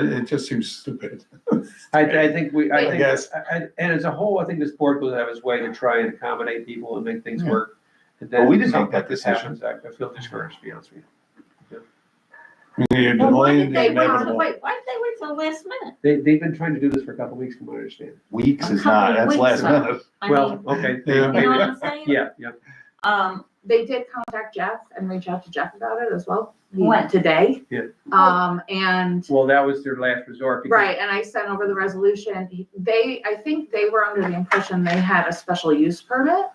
It it just seems stupid. I, I think we, I think, Yes. I- I- and as a whole, I think this board goes out of its way to try and accommodate people and make things Yeah. work. And Well, then we didn't something make that like this decision. happens, I I feel discouraged, to be honest with you. You're Well, why delaying did the they wait, till- inevitable. wait, why did they wait till the last minute? They, they've been trying to do this for a couple of weeks, from what I understand. Weeks is A couple not, of that's weeks last out. minute. I Well, mean, okay, Yeah. they- You know what maybe, I'm saying? yeah, yeah. Um, they did contact Jeff and reach out to Jeff about it as well. He- When? Today. Yeah. Um, and, Well, that was their last resort. because- right, and I sent over the resolution. He- They, I think they were under the impression they had a special use permit.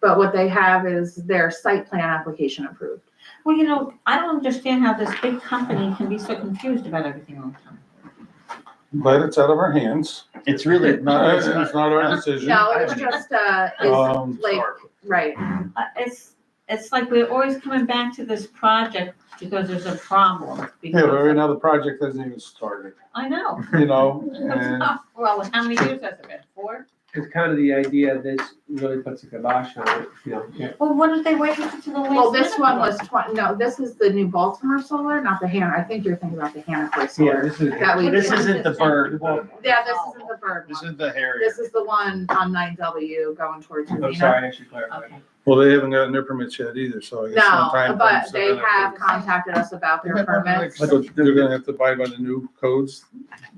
But what they have is their site plan application approved. Well, you know, I don't understand how this big company can be so confused about everything all the time. But it's out of our hands. It's really No, not, It's it's not our decision. No, it's just, uh, it's Um, like, right, Uh, It's, it's like we're always coming back to this project because there's a problem. Yeah, because but right of- now the project hasn't even started, I know. you know, and Well, how many years has it been? Four? It's kind of the idea, this really puts a kibosh on it, you know. Well, what did they wait until the last? Well, this minute one was for? twenty, no, this is the new Baltimore solar, not the Hannah, I think you're thinking about the Hannaford Yeah, solar. this is. That we this did. isn't the bird. Well, Yeah, this isn't the bird this one, is the Harrier. this is the one on nine W going towards I'm Ruvina. sorry, I should clarify. Okay. Well, they haven't gotten their permits yet either, so I guess No, sometime. but they have contacted us about their permits. So they're gonna have to abide by the new codes,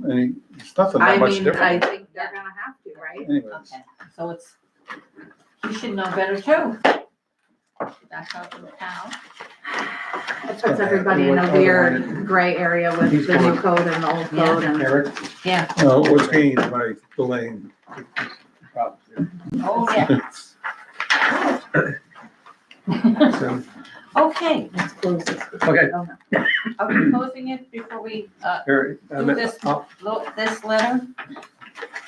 and it's nothing I that much mean, I different think they're gonna have to, right? anyways. Okay, so it's, you should know better too. That's how, how. It puts everybody in a weird gray area with the new code and the old code and Eric, Yeah. No, what's gained by delaying? problems there. Oh, yeah. So, Okay, it's closed. Oh, Okay. are we closing it before we, uh, Eric, um, Do this. I'm, look, this letter?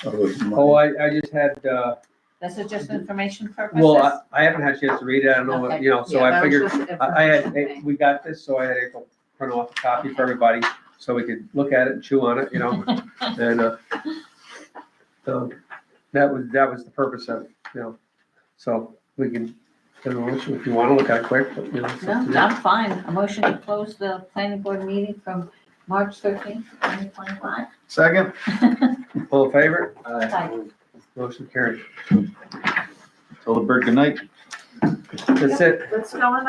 Oh, I, I just had, uh, This is just information purposes? well, I- I haven't had a chance to read it, I don't know, what- you know, so Yeah, I that was figured, just an I I information had, thing. we got this, so I had April print off a copy for everybody, so we could look at it and chew on it, you know, and, uh, so, that was, that was the purpose of, it, you know, so, we can, I don't know, if you wanna look at it quick, but, you know. it's up to No, you. I'm fine. A motion to close the planning board meeting from March thirteenth, twenty twenty-five. Second? All in favor? Aye. Motion carried, Tell the bird good night. that's it. What's going on?